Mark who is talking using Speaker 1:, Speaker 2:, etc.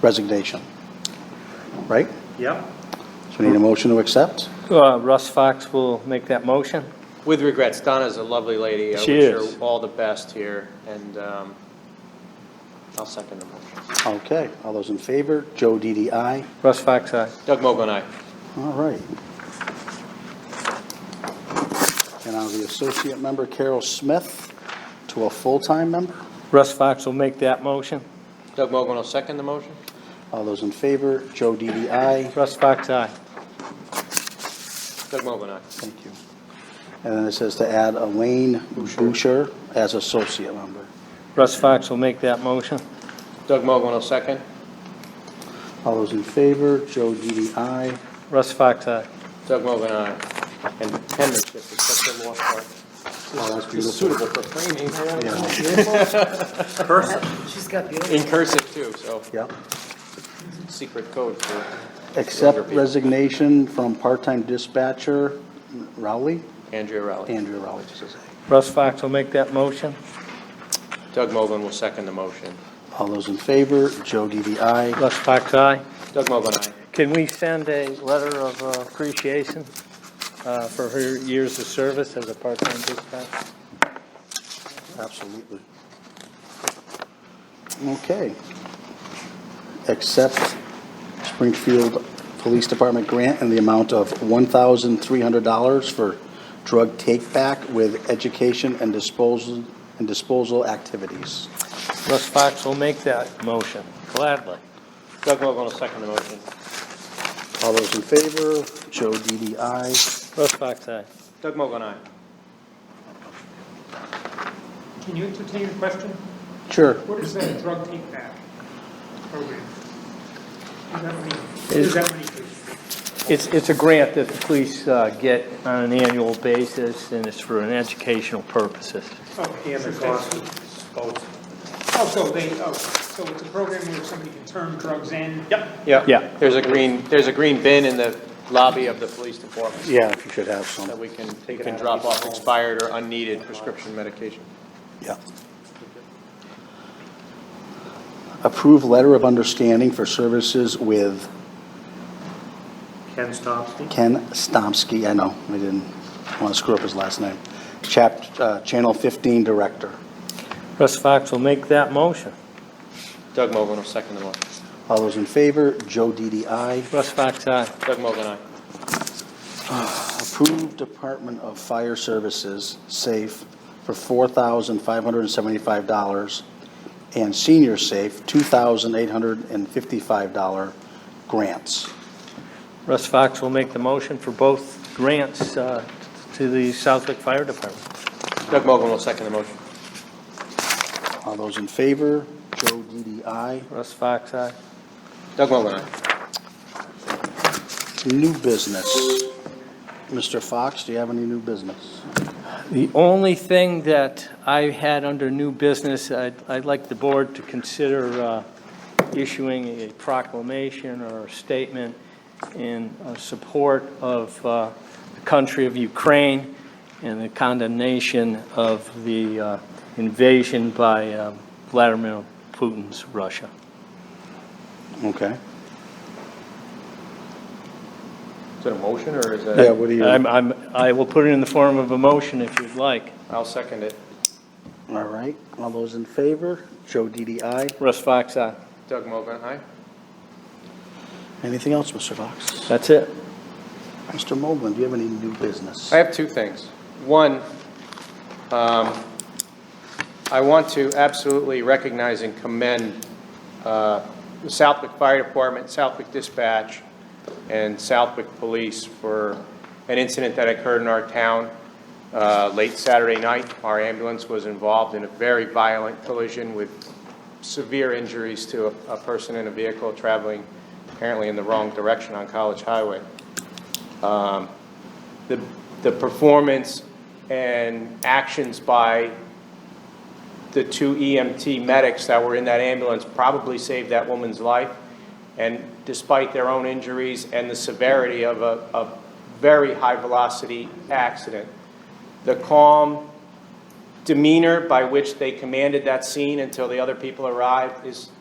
Speaker 1: resignation. Right?
Speaker 2: Yep.
Speaker 1: So we need a motion to accept?
Speaker 3: Uh, Russ Fox will make that motion.
Speaker 4: With regrets, Donna's a lovely lady.
Speaker 3: She
Speaker 4: I
Speaker 3: is.
Speaker 4: wish her all the best here, and um, I'll second the motion.
Speaker 1: Okay, all those in favor? Joe DDI.
Speaker 3: Russ Fox, aye.
Speaker 4: Doug Mogul and I.
Speaker 1: All right. And I'll the associate member Carol Smith to a full-time member.
Speaker 3: Russ Fox will make that motion.
Speaker 4: Doug Mogul will second the motion.
Speaker 1: All those in favor? Joe DDI.
Speaker 3: Russ Fox, aye.
Speaker 4: Doug Mogul and I.
Speaker 1: Thank you. And then it says to add Elaine Boucher as associate member.
Speaker 3: Russ Fox will make that motion.
Speaker 4: Doug Mogul will second.
Speaker 1: All those in favor? Joe DDI.
Speaker 3: Russ Fox, aye.
Speaker 4: Doug Mogul and I. And penmanship is such a lost art.
Speaker 1: Oh, that's
Speaker 4: It's
Speaker 1: beautiful.
Speaker 4: suitable for framing.
Speaker 5: She's got beautiful.
Speaker 4: In cursive, too, so
Speaker 1: Yeah.
Speaker 4: secret code for Younger
Speaker 1: Accept
Speaker 4: people.
Speaker 1: resignation from part-time dispatcher Rowley,
Speaker 4: Andrea Rowley.
Speaker 1: Andrea Rowley, just as a-
Speaker 3: Russ Fox will make that motion.
Speaker 4: Doug Mogul will second the motion.
Speaker 1: All those in favor? Joe DDI.
Speaker 3: Russ Fox, aye.
Speaker 4: Doug Mogul and I.
Speaker 3: Can we send a letter of uh, appreciation uh, for her years of service as a part-time dispatcher?
Speaker 1: Absolutely. Okay. Accept Springfield Police Department grant in the amount of $1,300 for drug take-back with education and disposal, and disposal activities.
Speaker 3: Russ Fox will make that motion, gladly.
Speaker 4: Doug Mogul will second the motion.
Speaker 1: All those in favor? Joe DDI.
Speaker 3: Russ Fox, aye.
Speaker 4: Doug Mogul and I.
Speaker 2: Can you entertain a question?
Speaker 1: Sure.
Speaker 2: What is that drug take back program? What does that mean? What does that mean?
Speaker 3: It's, it's a grant that the police uh, get on an annual basis, and it's for an educational purposes.
Speaker 2: Okay, so that's- Oh, so they, oh, so it's a program where somebody can turn drugs in? Yep.
Speaker 3: Yeah.
Speaker 4: There's a green, there's a green bin in the lobby of the police department
Speaker 1: Yeah, if you should have
Speaker 4: that
Speaker 1: some.
Speaker 4: we can, we can drop off expired or unneeded prescription medication.
Speaker 1: Yeah. Approve letter of understanding for services with
Speaker 2: Ken Stopsy?
Speaker 1: Ken Stomsky, I know, we didn't want to screw up his last name, chap, uh, Channel 15 Director.
Speaker 3: Russ Fox will make that motion.
Speaker 4: Doug Mogul will second the motion.
Speaker 1: All those in favor, Joe DDI.
Speaker 3: Russ Fox, uh, aye.
Speaker 4: Doug Mogul and I.
Speaker 1: Approved Department of Fire Services, SAFE, for $4,575, and Senior SAFE, $2,855 grants.
Speaker 3: Russ Fox will make the motion for both grants uh, to the Southwick Fire Department.
Speaker 4: Doug Mogul will second the motion.
Speaker 1: All those in favor, Joe DDI.
Speaker 3: Russ Fox, uh, aye.
Speaker 4: Doug Mogul and I.
Speaker 1: New business. Mr. Fox, do you have any new business?
Speaker 3: The only thing that I had under new business, I'd, I'd like the board to consider uh, issuing a proclamation or a statement in uh, support of uh, the country of Ukraine and the condemnation of the uh, invasion by um, Vladimir Putin's Russia.
Speaker 1: Okay.
Speaker 4: Is it a motion or is
Speaker 1: Yeah,
Speaker 4: it?
Speaker 1: what do you, all
Speaker 3: I'm, I'm, I will put it in the form of a motion if you'd like.
Speaker 4: I'll second it.
Speaker 1: right, all those in favor? Joe DDI.
Speaker 3: Russ Fox, aye.
Speaker 4: Doug Mogul and I.
Speaker 1: Anything else, Mr. Fox?
Speaker 3: That's it.
Speaker 1: Mr. Moblin, do you have any new business?
Speaker 4: I have two things. One, um, I want to absolutely recognize and commend uh, the Southwick Fire Department, Southwick Dispatch, and Southwick Police for an incident that occurred in our town uh, late Saturday night. Our ambulance was involved in a very violent collision with severe injuries to a- a person in a vehicle traveling apparently in the wrong direction on College Highway the, the performance and actions by the two EMT medics that were in that ambulance probably saved that woman's life. And despite their own injuries and the severity of a, a very high-velocity accident, the calm demeanor by which they commanded that scene until the other people arrived is